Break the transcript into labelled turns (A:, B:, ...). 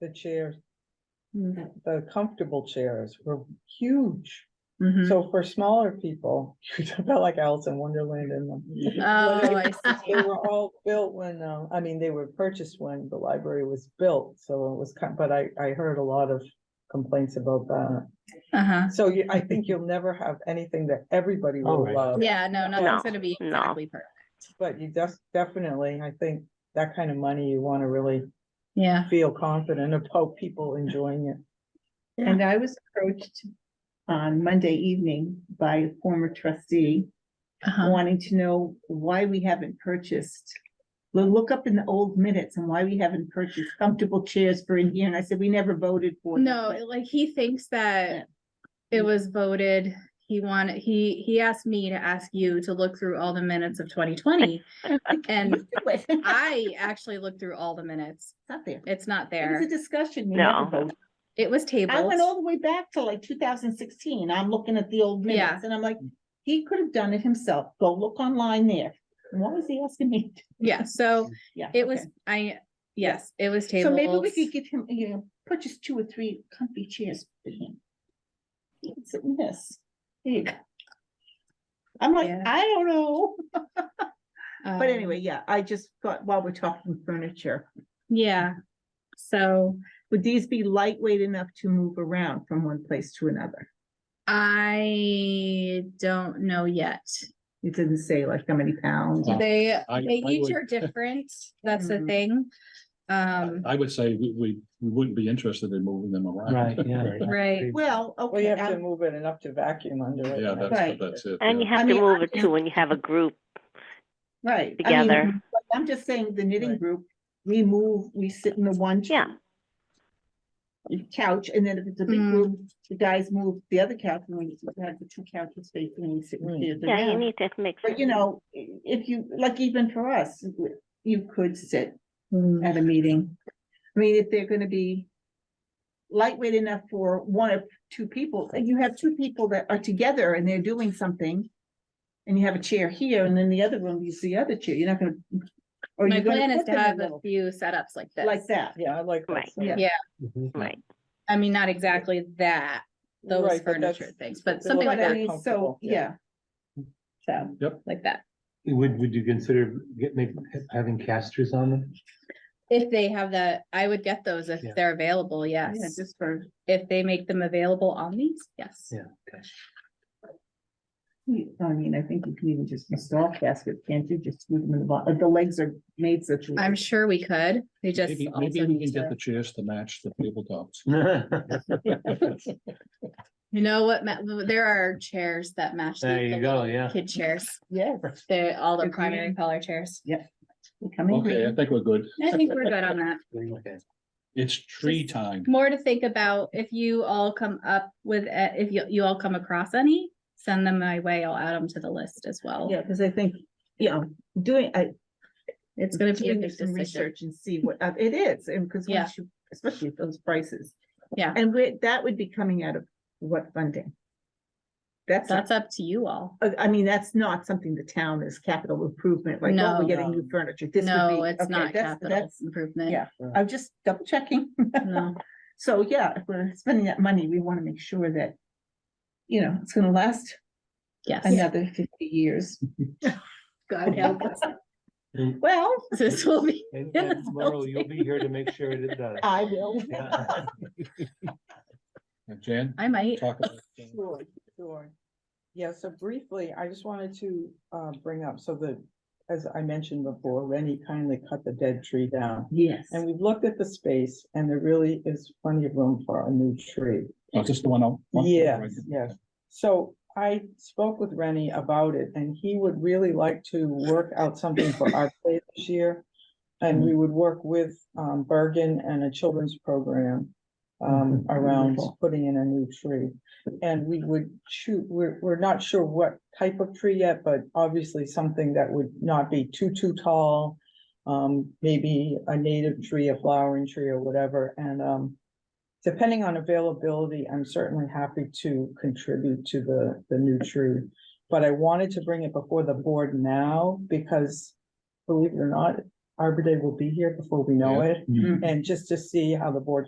A: the chairs,
B: Mhm.
A: the comfortable chairs were huge.
C: Mm-hmm.
B: Mhm.
A: So for smaller people, you felt like Alice in Wonderland in them.
B: Oh, I see.
A: They were all built when, uh, I mean, they were purchased when the library was built, so it was kind, but I, I heard a lot of complaints about that.
B: Uh-huh.
A: So you, I think you'll never have anything that everybody
C: Oh,
A: will
C: right.
A: love,
B: Yeah, no, nothing's gonna be
D: no.
B: exactly perfect.
A: but you just definitely, I think that kind of money, you want to really
B: Yeah.
A: feel confident about people enjoying it.
E: And I was approached on Monday evening by a former trustee
B: Uh-huh.
E: wanting to know why we haven't purchased. We'll look up in the old minutes and why we haven't purchased comfortable chairs for in here. And I said, we never voted for. them."
B: No, it- like he thinks
E: Yeah.
B: that it was voted, he wanted, he, he asked me to ask you to look through all the minutes of twenty twenty. And
E: It's
B: I actually looked through all the minutes.
E: not there.
B: It's not
E: It was a
B: there.
E: discussion. we
D: No.
E: never voted.
B: It was
E: I
B: tabled.
E: went all the way back to like two thousand sixteen. I'm looking at the old minutes and I'm like, he could have done it himself. Go look online there. Why was he asking me? to-
B: Yeah, so
E: Yeah.
B: it was,
E: okay.
B: I, yes, it was
E: So
B: tabled.
E: maybe we could give him, you know, purchase two or three comfy chairs for him. He can sit in this. There you go. I'm like,
B: Yeah.
E: I don't know,
B: Um,
E: but anyway, yeah, I just thought while we're talking furniture,
B: Yeah, so.
E: would these be lightweight enough to move around from one place to another?
B: I don't know yet.
E: It didn't say like how many pounds.
C: Yeah.
B: They,
C: I-
B: they
C: I
B: each
C: would-
B: are different. That's the
E: Mhm.
B: thing. Um,
C: Uh,
F: I would say we, we, we wouldn't be interested in moving them around.
C: Right, yeah.
B: right.
E: Well,
A: Well, you
E: okay, um,
A: have to
E: I'm-
A: move it enough to vacuum under it.
F: Yeah,
A: and
F: that's,
E: Right.
F: that's it.
D: And you
F: yeah.
D: have
E: I
D: to
E: mean,
D: move
E: I
D: it
E: can-
D: too when you have a group
E: right. I mean,
D: together.
E: but I'm just saying the knitting
A: Right.
E: group, we move, we sit in the one.
D: Yeah.
E: Couch, and then if it's a big
B: Mm.
E: group, the guys move the other couch, and we have the two couches facing, and we sit
A: Mm.
E: and the other
D: Yeah, you
E: round.
D: need to mix.
E: But you
D: it.
E: know, i- if you, like even for us, you could sit
B: Mm.
E: at a meeting. I mean, if they're gonna be lightweight enough for one or two people, and you have two people that are together and they're doing something. And you have a chair here and then the other room, you see the other chair, you're not gonna. or
B: My
E: you're gonna
B: plan is
E: put
B: to
E: them in
B: have a
E: little-
B: few setups like this.
E: Like that.
A: Yeah, I like that.
D: Right.
A: so-
E: Yeah.
C: Mhm.
D: Right.
B: I mean, not exactly that, those
A: Right, but that's-
B: furniture things, but
A: the
B: something
E: But
B: like
E: I
B: that,
E: mean, so,
A: Comfortable, yeah.
E: yeah. So,
B: like that.
C: Would, would you consider get, make, having casters on them?
B: If they have that, I would get those if
C: Yeah.
B: they're available,
E: yeah,
B: yes.
E: just for,
B: If they make them available on these, yes.
C: Yeah, okay.
E: I mean, I think you can even just install caskets, can't you just move them in the bottom, the legs are made such. a way.
B: I'm sure we could. They just
F: Maybe,
B: also
F: maybe we
B: need
F: can get
B: to,
F: the chairs to match the tabletops.
B: you know what, ma- there are chairs that match. the-
C: There you
B: the
C: go,
B: little
C: yeah.
B: Kid chairs.
E: Yes.
B: They're all the
E: Agreed.
B: primary color chairs.
E: they come in
F: Okay, I
E: green.
F: think we're good.
B: I think we're good on that.
C: Okay.
F: It's tree time.
B: More to think about if you all come up with, uh, if you, you all come across any, send them my way. I'll add them to the list as well.
E: Yeah, because I think, you know, doing, I.
B: It's gonna be a
E: doing
B: big decision.
E: some Research and see what, uh, it is, and because
B: Yeah.
E: once you, especially at those prices.
B: Yeah.
E: And we, that would be coming out of what funding? That's, not-
B: That's up to you all.
E: uh, I mean, that's not something the town is capital improvement, like, oh,
B: No.
E: we're getting new furniture. This would
B: No,
E: be-
B: it's
E: okay,
B: not
E: that's-
B: capital
E: that's-
B: improvement.
E: Yeah, I'm just double checking.
B: No,
E: So, yeah, if we're spending that money, we want to make sure that, you know, it's gonna last
B: yes.
E: another fifty years.
B: God help us.
C: And-
E: Well,
B: This will be,
C: and-
B: Yeah,
C: and Tomorrow you'll be here to make sure that it does.
E: I will.
C: Yeah.
F: Jan?
B: I might.
F: Uh, Talk about it.
A: Sure, sure. Yeah, so briefly, I just wanted to uh bring up, so the, as I mentioned before, Rennie kindly cut the dead tree down.
E: Yes.
A: And we've looked at the space and there really is plenty of room for a new tree.
F: Oh, just the one out. one-
A: Yes, yes. So I spoke with Rennie about it and he would really like to work out something for our play this year. And we would work with um Bergen and a children's program um
C: Mhm.
A: around
E: Wonderful.
A: putting in a new tree. And we would shoot, we're we're not sure what type of tree yet, but obviously something that would not be too, too tall. Um, maybe a native tree, a flowering tree or whatever, and um depending on availability, I'm certainly happy to contribute to the, the new tree. But I wanted to bring it before the board now because, believe it or not, Arbor Day will be here before we know it.
F: Mhm.
A: And just to see how the board